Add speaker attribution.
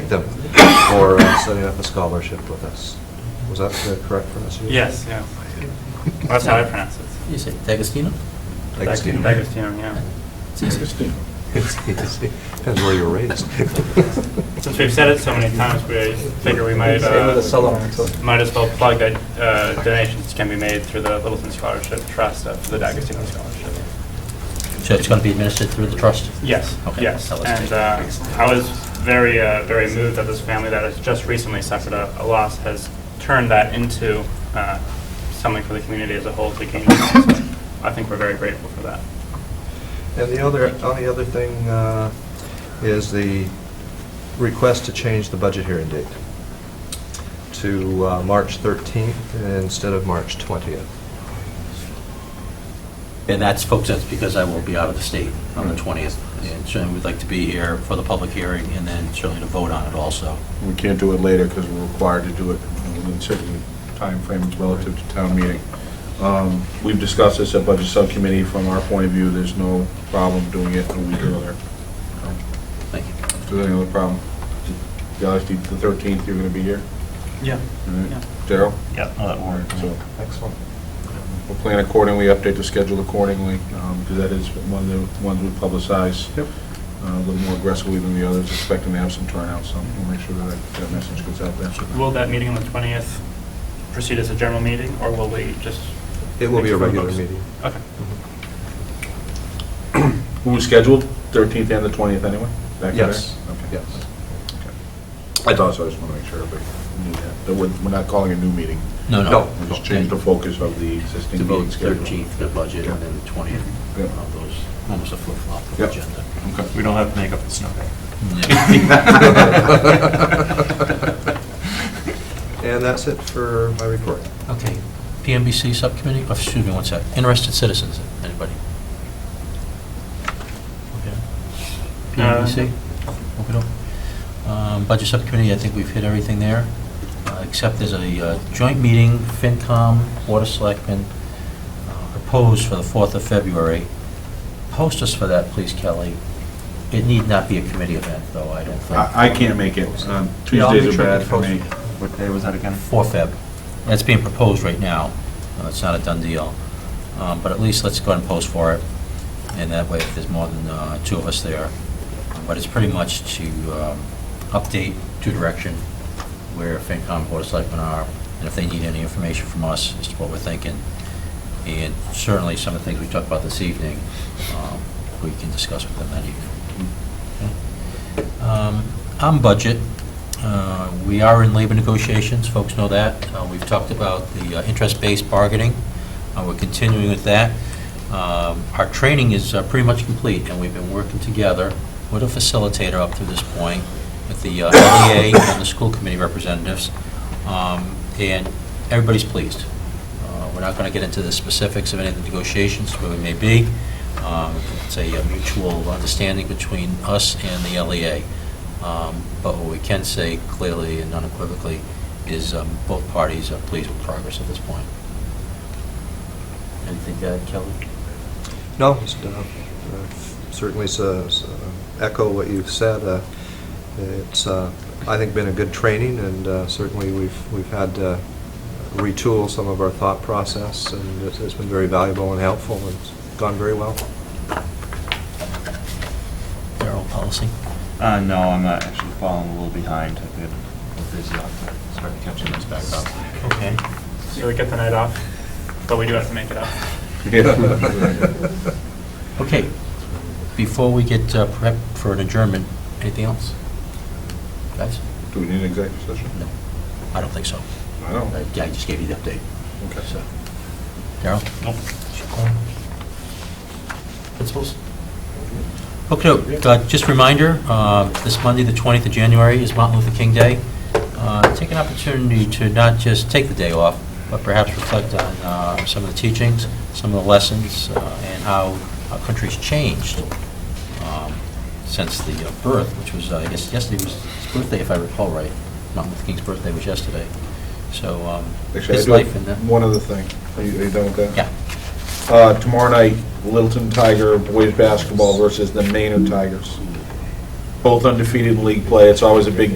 Speaker 1: thank them for uh, setting up a scholarship with us. Was that the correct pronunciation?
Speaker 2: Yes, yeah. That's how I pronounce it.
Speaker 3: You say D'Agostino?
Speaker 1: Thanks, Steve.
Speaker 2: D'Agostino, yeah.
Speaker 3: It's easy.
Speaker 1: Depends where you were raised.
Speaker 2: Since we've said it so many times, we figure we might,
Speaker 4: Same with the
Speaker 2: uh,
Speaker 4: Solomon Club.
Speaker 2: might as well plug that uh, donations can be made through the Littleton Scholarship Trust uh, for the D'Agostino Scholarship.
Speaker 3: So it's going to be administered through the trust?
Speaker 2: Yes,
Speaker 3: Okay,
Speaker 2: yes.
Speaker 3: that was
Speaker 2: And
Speaker 3: good.
Speaker 2: uh, I was very, uh, very moved that this family that has just recently suffered a a loss has turned that into uh, something for the community as a whole to gain. So I think we're very grateful for that.
Speaker 1: And the other, only other thing uh, is the request to change the budget hearing date to uh, March 13th instead of March 20th.
Speaker 3: And that's, folks, that's because I will be out of the state on the 20th. And certainly, we'd like to be here for the public hearing and then certainly to vote on it also.
Speaker 5: We can't do it later because we're required to do it within certain timeframes relative to town meeting. Um, We've discussed this at Budget Subcommittee. From our point of view, there's no problem doing it a week earlier.
Speaker 3: Thank you.
Speaker 5: If there's any other problem, Galaxy, the 13th, you're going to be here?
Speaker 2: Yeah.
Speaker 5: All right. Daryl?
Speaker 2: Yeah.
Speaker 3: Oh, that
Speaker 5: All right, so
Speaker 1: Excellent.
Speaker 5: we'll plan accordingly, update the schedule accordingly, because that is one of the ones we publicize.
Speaker 1: Yep.
Speaker 5: uh, A little more aggressively than the others, expecting to have some turnout, so we'll make sure that that message goes out there.
Speaker 2: Will that meeting on the 20th proceed as a general meeting, or will we just?
Speaker 1: It will be a
Speaker 2: make
Speaker 1: regular
Speaker 2: votes?
Speaker 1: meeting.
Speaker 2: Okay.
Speaker 5: Who was scheduled, 13th and the 20th anyway? Back to
Speaker 1: Yes,
Speaker 5: there? Okay.
Speaker 1: yes.
Speaker 5: Okay. I thought so, I just want to make sure everybody knew that. that. We're we're not calling a new meeting.
Speaker 3: No,
Speaker 1: No.
Speaker 3: no.
Speaker 5: We just changed the focus of the existing
Speaker 3: To vote
Speaker 5: meeting schedule.
Speaker 3: 13th, for the budget, and then the 20th.
Speaker 5: Yeah.
Speaker 3: Uh, Those, almost a flip-flop of
Speaker 5: Yeah.
Speaker 3: agenda.
Speaker 5: Okay.
Speaker 6: We don't have to make up the snow day.
Speaker 3: Mm-hmm.
Speaker 1: And that's it for my report.
Speaker 3: Okay. PMBC Subcommittee, oh, excuse me, one sec. Interested citizens, anybody? Okay. PMBC? Okey-doke. Um, Budget Subcommittee, I think we've hit everything there, uh, except there's a uh, joint meeting, FinCom, Water Selectmen, uh, proposed for the 4th of February. Post us for that, please, Kelly. It need not be a committee event, though, I don't think.
Speaker 5: I I can't make it. Um,
Speaker 6: Yeah, I'll make
Speaker 5: Tuesdays are
Speaker 6: sure
Speaker 5: bad
Speaker 6: it's
Speaker 5: for me.
Speaker 6: posted. What day was that again?
Speaker 3: for Feb. That's being proposed right now. Uh, It's not a done deal. Um, But at least let's go ahead and post for it, and that way, if there's more than uh, two of us there. But it's pretty much to um, update to direction where FinCom, Board of Selectmen are, and if they need any information from us as to what we're thinking. And certainly, some of the things we talked about this evening, um, we can discuss with them that evening. Um, On budget, uh, we are in labor negotiations, folks know that. Uh, We've talked about the uh, interest-based bargaining, Uh, we're continuing with that. Um, Our training is uh, pretty much complete, and we've been working together with a facilitator up to this point, with the uh, LEA and the school committee representatives, Um, and everybody's pleased. Uh, We're not going to get into the specifics of any of the negotiations, where we may be. Um, It's a uh, mutual understanding between us and the LEA. Um, But what we can say clearly and unequivocally is um, both parties are pleased with progress at this point. Anything to add, Kelly?
Speaker 1: No, it's, uh, uh, certainly s- uh, s- uh, echo what you've said. Uh, It's, uh, I think, been a good training, and uh, certainly we've, we've had to retool some of our thought process, and it's- it's been very valuable and helpful, and it's gone very well.
Speaker 3: Darrell, policy?
Speaker 6: Uh, no, I'm uh, actually falling a little behind. I've been a little busy out there. Started catching this back up.
Speaker 3: Okay.
Speaker 2: So we get the night off, but we do have to make it up.
Speaker 3: Okay. Before we get uh, prepped for an adjournment, anything else? Guys?
Speaker 5: Do we need an executive session?
Speaker 3: No, I don't think so.
Speaker 5: I don't.
Speaker 3: I I just gave you the update.
Speaker 5: Okay.
Speaker 3: So, Darrell? Principals? Okay, uh, just reminder, uh, this Monday, the 20th of January, is Martin Luther King Day. Uh, Take an opportunity to not just take the day off, but perhaps reflect on uh, some of the teachings, some of the lessons, uh, and how our country's changed um, since the uh, birth, which was, uh, I guess, yesterday was his birthday, if I recall right. Martin Luther King's birthday was yesterday. So um,
Speaker 5: Actually, I
Speaker 3: his
Speaker 5: do
Speaker 3: life and the...
Speaker 5: have one other thing. Are you are you done with that?
Speaker 3: Yeah.
Speaker 5: Uh, Tomorrow night, Littleton Tiger boys basketball versus the Maynard Tigers. Both undefeated in league play. It's always a big